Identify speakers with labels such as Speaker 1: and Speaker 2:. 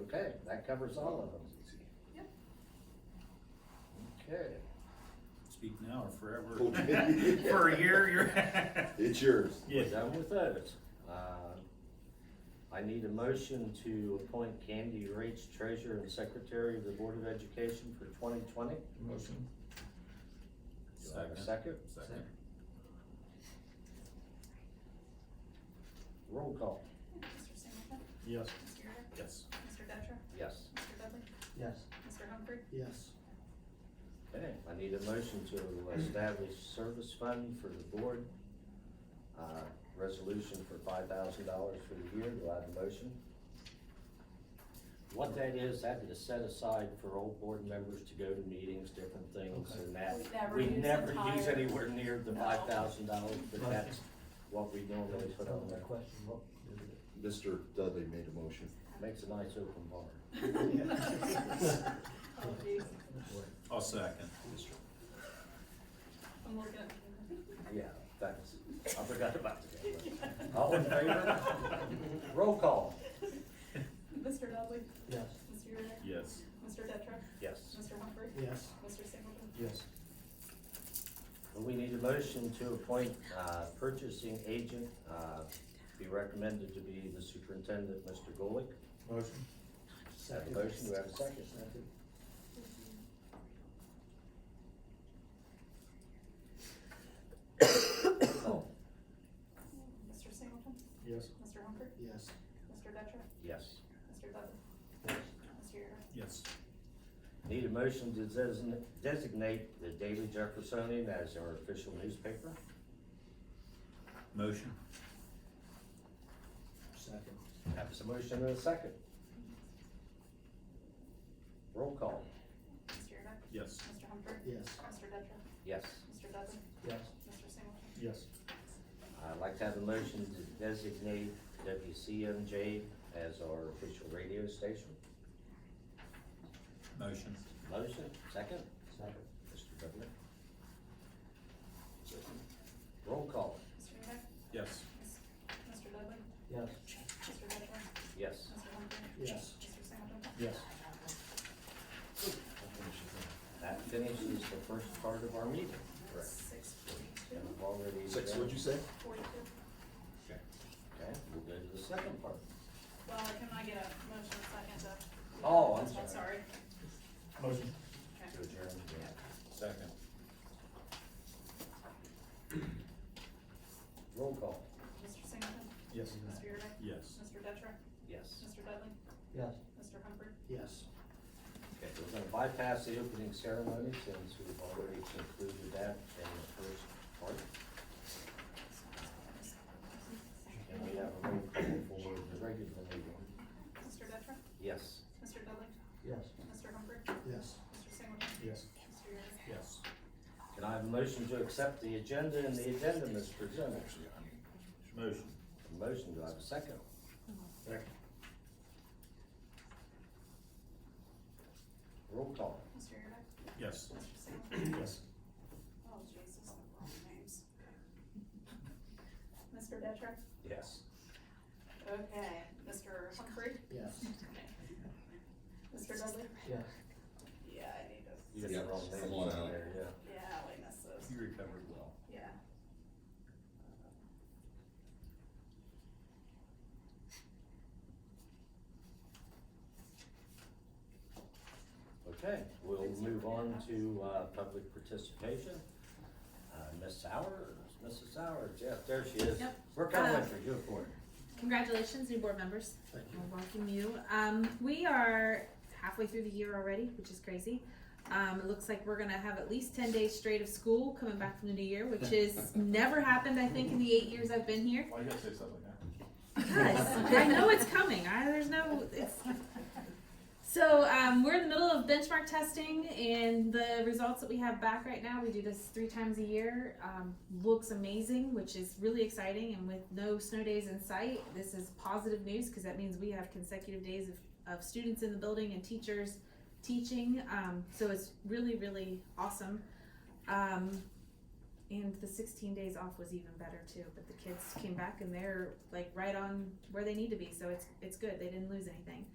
Speaker 1: Okay, that covers all of them.
Speaker 2: Yep.
Speaker 1: Okay.
Speaker 3: Speak now or forever.
Speaker 4: Okay.
Speaker 3: For a year, you're.
Speaker 4: It's yours.
Speaker 1: We're
Speaker 3: Yes.
Speaker 1: done with those. Uh, I need a motion to appoint Candy Reach Treasurer and Secretary of the Board of Education for twenty twenty.
Speaker 5: Motion.
Speaker 1: Do I have a second?
Speaker 3: Second.
Speaker 1: Roll call.
Speaker 2: Mr. Singleton?
Speaker 5: Yes.
Speaker 2: Mr. Yerga?
Speaker 3: Yes.
Speaker 2: Mr. Detra?
Speaker 1: Yes.
Speaker 2: Mr. Dudley?
Speaker 5: Yes.
Speaker 2: Mr. Humphrey?
Speaker 5: Yes.
Speaker 1: Okay, I need a motion to establish service fund for the board. Uh, resolution for five thousand dollars for the year. Do I have a motion? What that is, that is set aside for old board members to go to meetings, different things and that.
Speaker 2: We never
Speaker 1: We
Speaker 2: use
Speaker 1: never
Speaker 2: entire-
Speaker 1: use anywhere near the
Speaker 2: No.
Speaker 1: five thousand dollars, but
Speaker 5: Right.
Speaker 1: that's what we normally put on there.
Speaker 5: question, what?
Speaker 4: Mr. Dudley made a motion.
Speaker 1: Makes a nice open bar.
Speaker 2: Oh, geez.
Speaker 3: I'll second.
Speaker 2: I'm looking at.
Speaker 1: Yeah, thanks. I forgot about that. All in favor? Roll call.
Speaker 2: Mr. Dudley?
Speaker 5: Yes.
Speaker 2: Mr. Yerga?
Speaker 3: Yes.
Speaker 2: Mr. Detra?
Speaker 1: Yes.
Speaker 2: Mr. Humphrey?
Speaker 5: Yes.
Speaker 2: Mr. Singleton?
Speaker 5: Yes.
Speaker 1: We need a motion to appoint uh, purchasing agent, uh, be recommended to be the superintendent, Mr. Golick.
Speaker 5: Motion.
Speaker 1: Have a motion, do we have a second? Oh,
Speaker 2: Mr. Singleton?
Speaker 5: Yes.
Speaker 2: Mr. Humphrey?
Speaker 5: Yes.
Speaker 2: Mr. Detra?
Speaker 1: Yes.
Speaker 2: Mr. Dudley? Mr. Yerga?
Speaker 3: Yes.
Speaker 1: Need a motion to design- designate the Daily Jeffersonian as our official newspaper.
Speaker 3: Motion.
Speaker 5: Second.
Speaker 1: Have a motion and a second. Roll call.
Speaker 2: Mr. Yerga?
Speaker 3: Yes.
Speaker 2: Mr. Humphrey?
Speaker 5: Yes.
Speaker 2: Mr. Detra?
Speaker 1: Yes.
Speaker 2: Mr. Dudley?
Speaker 5: Yes.
Speaker 2: Mr. Singleton?
Speaker 5: Yes.
Speaker 1: I'd like to have a motion to designate WCMJ as our official radio station.
Speaker 3: Motion.
Speaker 1: Motion, second,
Speaker 5: Second.
Speaker 1: Mr. Dudley. Roll call,
Speaker 2: Mr. Yerga?
Speaker 3: Yes.
Speaker 2: Yes. Mr. Dudley?
Speaker 5: Yes.
Speaker 2: Mr. Detra?
Speaker 1: yes.
Speaker 2: Mr. Humphrey?
Speaker 5: Yes.
Speaker 2: Mr. Singleton?
Speaker 5: Yes.
Speaker 1: That finishes the first part of our meeting.
Speaker 2: Six
Speaker 1: And
Speaker 2: forty-two,
Speaker 1: we've already.
Speaker 4: Six, what'd you say?
Speaker 2: forty-two.
Speaker 1: Okay, we'll go to the second part.
Speaker 2: Well, can I get a motion second to?
Speaker 1: Oh, I'm sorry.
Speaker 2: Sorry.
Speaker 5: Motion.
Speaker 1: To adjourn, yeah.
Speaker 3: Second.
Speaker 1: Roll call,
Speaker 2: Mr. Singleton?
Speaker 5: Yes.
Speaker 2: Mr. Yerga?
Speaker 3: Yes.
Speaker 2: Mr. Detra?
Speaker 1: yes.
Speaker 2: Mr. Dudley?
Speaker 5: Yes.
Speaker 2: Mr. Humphrey?
Speaker 5: Yes.
Speaker 1: Okay, we're gonna bypass the opening ceremony since we've already concluded that in the first part. And we have a roll call for the regular meeting.
Speaker 2: Mr. Detra?
Speaker 1: Yes.
Speaker 2: Mr. Dudley?
Speaker 5: Yes.
Speaker 2: Mr. Humphrey?
Speaker 5: Yes.
Speaker 2: Mr. Singleton?
Speaker 5: Yes.
Speaker 2: Mr. Yerga?
Speaker 3: Yes.
Speaker 1: Can I have a motion to accept the agenda and the agenda is presented?
Speaker 3: Motion.
Speaker 1: A Motion, do I have a second?
Speaker 5: Second.
Speaker 1: Roll call.
Speaker 2: Mr. Yerga?
Speaker 3: Yes.
Speaker 2: Mr. Singleton?
Speaker 5: Yes.
Speaker 2: Oh, Jesus, the wrong names. Mr. Detra?
Speaker 1: Yes.
Speaker 2: Okay. Mr. Humphrey?
Speaker 5: Yes.
Speaker 2: Mr. Dudley?
Speaker 5: Yes.
Speaker 2: Yeah, I need to,
Speaker 1: You got the wrong
Speaker 4: Yeah,
Speaker 1: name
Speaker 4: come on
Speaker 1: on
Speaker 4: out.
Speaker 1: there, yeah.
Speaker 2: yeah, we missed those.
Speaker 3: You recovered well.
Speaker 2: Yeah.
Speaker 1: Okay, we'll move on to, uh, public participation. Uh, Miss Sauer, Mrs. Sauer, Jeff, there she is.
Speaker 6: Yep.
Speaker 1: We're coming
Speaker 6: Um,
Speaker 1: for you, for it.
Speaker 6: Congratulations, new board members.
Speaker 5: Thank you.
Speaker 6: I welcome you. Um, we are halfway through the year already, which is crazy. Um, it looks like we're gonna have at least ten days straight of school coming back from the new year, which is never happened, I think, in the eight years I've been here.
Speaker 3: Why you gotta say something like that?
Speaker 6: Because I know it's coming. I, there's no. Oh, It's, so um, we're in the middle of benchmark testing, and the results that we have back right now, we do this three times a year, um, looks amazing, which is really exciting. And with no snow days in sight, this is positive news because that means we have consecutive days of, of students in the building and teachers teaching. Um, so it's really, really awesome. Um, and the 16 days off was even better too. But the kids came back and they're like right on where they need to be. So it's it's good. They didn't lose anything.